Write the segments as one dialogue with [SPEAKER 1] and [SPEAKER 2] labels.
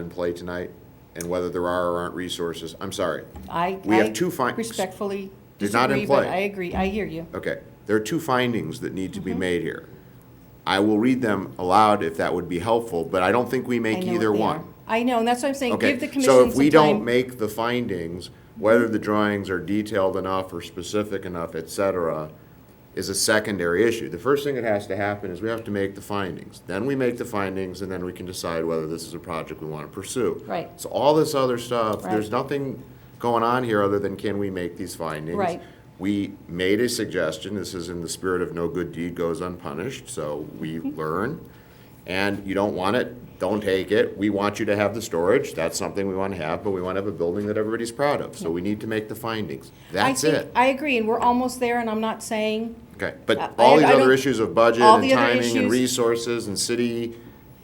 [SPEAKER 1] in play tonight and whether there are or aren't resources. I'm sorry.
[SPEAKER 2] I.
[SPEAKER 1] We have
[SPEAKER 2] I
[SPEAKER 1] two fin-
[SPEAKER 2] Respectfully
[SPEAKER 1] They're not in
[SPEAKER 2] disagree, but
[SPEAKER 1] play.
[SPEAKER 2] I agree. I hear you.
[SPEAKER 1] Okay, there are two findings that need to
[SPEAKER 2] Mm-hmm.
[SPEAKER 1] be made here. I will read them aloud if that would be helpful, but I don't think we
[SPEAKER 2] I
[SPEAKER 1] make
[SPEAKER 2] know what
[SPEAKER 1] either
[SPEAKER 2] they are.
[SPEAKER 1] one.
[SPEAKER 2] I know, and that's what I'm saying. Give the
[SPEAKER 1] Okay,
[SPEAKER 2] commission
[SPEAKER 1] so if
[SPEAKER 2] some
[SPEAKER 1] we don't
[SPEAKER 2] time.
[SPEAKER 1] make the findings, whether the drawings are detailed enough or specific enough, et cetera, is a secondary issue. The first thing that has to happen is we have to make the findings. Then we make the findings, and then we can decide whether this is a project we want to pursue.
[SPEAKER 2] Right.
[SPEAKER 1] So all this other stuff, there's
[SPEAKER 2] Right.
[SPEAKER 1] nothing going on here other than can we make these findings?
[SPEAKER 2] Right.
[SPEAKER 1] We made a suggestion, this is in the spirit of no good deed goes unpunished, so we
[SPEAKER 2] Mm-hmm.
[SPEAKER 1] learn. And you don't want it, don't take it. We want you to have the storage, that's something we want to have, but we want to have a building that everybody's proud of. So we need to make the findings.
[SPEAKER 2] I
[SPEAKER 1] That's
[SPEAKER 2] think-
[SPEAKER 1] it.
[SPEAKER 2] I agree, and we're almost there, and I'm not saying,
[SPEAKER 1] Okay,
[SPEAKER 2] I-
[SPEAKER 1] but all
[SPEAKER 2] I-
[SPEAKER 1] these
[SPEAKER 2] I
[SPEAKER 1] other
[SPEAKER 2] don't-
[SPEAKER 1] issues of budget
[SPEAKER 2] all
[SPEAKER 1] and
[SPEAKER 2] the other
[SPEAKER 1] timing and
[SPEAKER 2] issues-
[SPEAKER 1] resources and city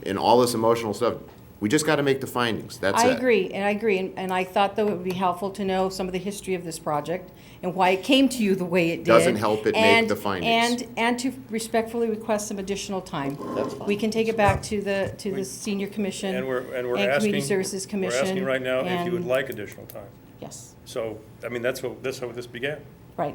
[SPEAKER 1] and all this emotional stuff, we just got to make the findings, that's
[SPEAKER 2] I
[SPEAKER 1] it.
[SPEAKER 2] agree, and I agree, and, and I thought though it would be helpful to know some of the history of this project and why it came to you the way it did.
[SPEAKER 1] Doesn't help it make
[SPEAKER 2] and-
[SPEAKER 1] the findings.
[SPEAKER 2] And, and to respectfully request some additional time.
[SPEAKER 3] That's fine.
[SPEAKER 2] We can take it back to the, to the senior commission.
[SPEAKER 4] And we're, and we're asking.
[SPEAKER 2] Community Services Commission.
[SPEAKER 4] We're asking right now if you would
[SPEAKER 2] and-
[SPEAKER 4] like additional time.
[SPEAKER 2] Yes,
[SPEAKER 4] So, I mean, that's what, that's how this began.
[SPEAKER 2] right.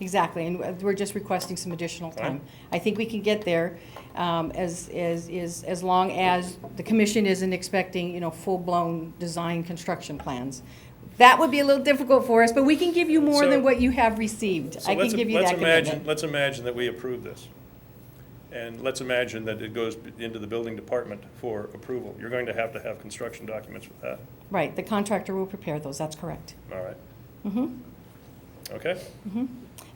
[SPEAKER 2] Exactly, and we're just requesting some additional time.
[SPEAKER 4] Fine.
[SPEAKER 2] I think we can get there um, as, as, is as long as the commission isn't expecting, you know, full-blown design construction plans. That would be a little difficult for us, but we can give you more than
[SPEAKER 4] So-
[SPEAKER 2] what you have received.
[SPEAKER 4] So
[SPEAKER 2] I can
[SPEAKER 4] let's-
[SPEAKER 2] give you
[SPEAKER 4] let's
[SPEAKER 2] that
[SPEAKER 4] imagine-
[SPEAKER 2] commitment.
[SPEAKER 4] Let's imagine that we approve this. And let's imagine that it goes b- into the building department for approval. You're going to have to have construction documents for that,
[SPEAKER 2] Right, the contractor will prepare those, that's correct.
[SPEAKER 4] all right? Mm-hmm. Okay?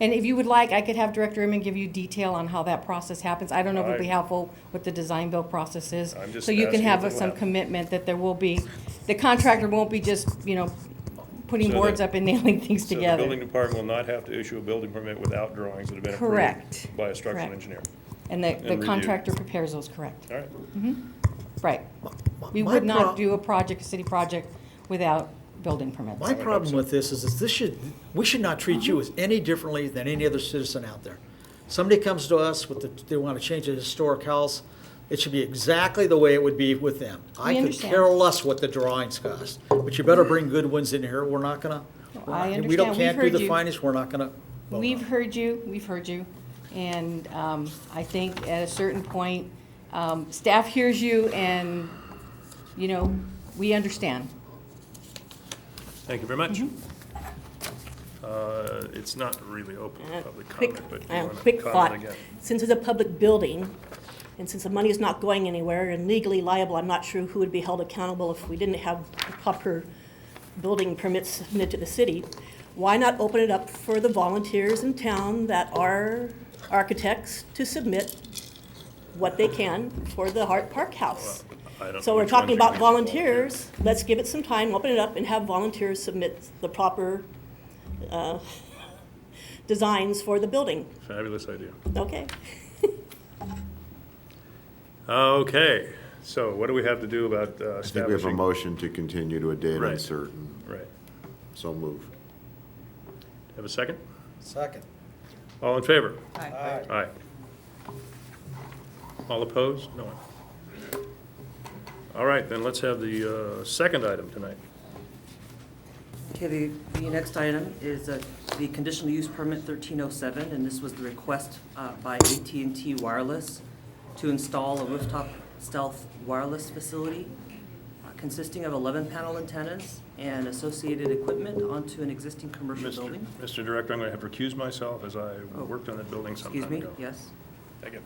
[SPEAKER 2] And if you would like, I could have Director Imman give you detail on how that process happens. I don't know if it'd be
[SPEAKER 4] I-
[SPEAKER 2] helpful what the design build process is.
[SPEAKER 4] I'm just
[SPEAKER 2] So you can
[SPEAKER 4] asking
[SPEAKER 2] have
[SPEAKER 4] if it
[SPEAKER 2] some
[SPEAKER 4] will.
[SPEAKER 2] commitment that there will be, the contractor won't be just, you know, putting
[SPEAKER 4] So the-
[SPEAKER 2] boards up and nailing things
[SPEAKER 4] So the building
[SPEAKER 2] together.
[SPEAKER 4] department will not have to issue a building permit without drawings that have been
[SPEAKER 2] Correct.
[SPEAKER 4] approved by a structural
[SPEAKER 2] Correct.
[SPEAKER 4] engineer.
[SPEAKER 2] And the, the
[SPEAKER 4] review.
[SPEAKER 2] contractor prepares those, correct,
[SPEAKER 4] All right?
[SPEAKER 2] right. We
[SPEAKER 3] my
[SPEAKER 2] would not
[SPEAKER 3] prob-
[SPEAKER 2] do a project, a city project, without building permits.
[SPEAKER 3] My problem with this is, is this should, we should not treat you
[SPEAKER 2] Mm-hmm.
[SPEAKER 3] as any differently than any other citizen out there. Somebody comes to us with the, they want to change a historic house, it should be exactly the way it would be with them. I could
[SPEAKER 2] understand.
[SPEAKER 3] care less what the drawings cost, but you better bring good ones in here, we're not gonna.
[SPEAKER 2] No, I
[SPEAKER 3] we don't-
[SPEAKER 2] understand. We've
[SPEAKER 3] Can't do
[SPEAKER 2] heard
[SPEAKER 3] the
[SPEAKER 2] you.
[SPEAKER 3] finest, we're not gonna. vote on
[SPEAKER 2] We've
[SPEAKER 3] it.
[SPEAKER 2] heard you, we've heard you, and um, I think at a certain point, um, staff hears you, and, you know, we understand.
[SPEAKER 4] Thank you very much.
[SPEAKER 5] Mm-hmm.
[SPEAKER 4] Uh, It's not really open to public
[SPEAKER 6] Quick,
[SPEAKER 4] comment, but
[SPEAKER 6] uh,
[SPEAKER 4] you want to
[SPEAKER 6] quick thought.
[SPEAKER 4] comment again.
[SPEAKER 6] Since it's a public building, and since the money is not going anywhere and legally liable, I'm not sure who would be held accountable if we didn't have the proper building permits submitted to the city. Why not open it up for the volunteers in town that are architects to submit what they can for the Hart Park House?
[SPEAKER 4] I don't
[SPEAKER 6] So
[SPEAKER 4] know
[SPEAKER 6] we're
[SPEAKER 4] which ones you
[SPEAKER 6] talking about
[SPEAKER 4] mean by volunteers.
[SPEAKER 6] volunteers, let's give it some time, open it up and have volunteers submit the proper, uh, designs for the building.
[SPEAKER 4] Fabulous idea.
[SPEAKER 6] Okay.
[SPEAKER 4] Okay, so what do we have to do about uh,
[SPEAKER 1] I think we have a
[SPEAKER 4] establishing?
[SPEAKER 1] motion to continue to a date
[SPEAKER 4] Right.
[SPEAKER 1] uncertain,
[SPEAKER 4] Right.
[SPEAKER 1] so move.
[SPEAKER 4] Have a second?
[SPEAKER 3] Second.
[SPEAKER 4] All in favor?
[SPEAKER 3] Aye.
[SPEAKER 4] Aye. All opposed? No one. All right, then let's have the uh, second item tonight.
[SPEAKER 5] Okay, the, the next item is uh, the conditional use permit 1307, and this was the request uh, by at and t Wireless to install a rooftop stealth wireless facility uh, consisting of 11 panel antennas and associated equipment onto an existing commercial
[SPEAKER 4] Mr.
[SPEAKER 5] building. Oh.
[SPEAKER 4] Mr. Director, I'm going to have to recuse myself as I worked on that building some time
[SPEAKER 5] Excuse
[SPEAKER 4] ago.
[SPEAKER 5] me, yes?
[SPEAKER 4] Thank you.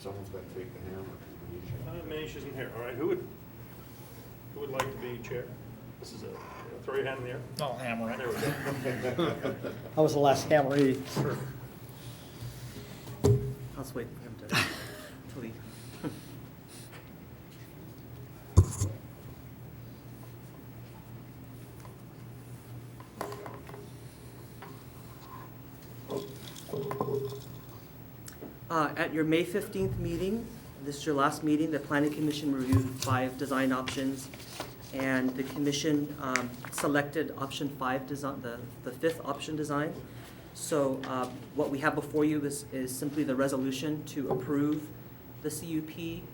[SPEAKER 1] Someone's got to take the hammer.
[SPEAKER 4] Uh, Manish isn't here, all right, who would, who would like to be chair? This is a, throw your hand in the air.
[SPEAKER 3] I'll hammer
[SPEAKER 4] There we go.
[SPEAKER 3] I was the last hammer he
[SPEAKER 5] I'll just wait for him to, to leave. Uh, At your May 15th meeting, this is your last meeting, the planning commission reviewed five design options, and the commission um, selected option five design, the, the fifth option design. So uh, what we have before you is, is simply the resolution to approve the CUP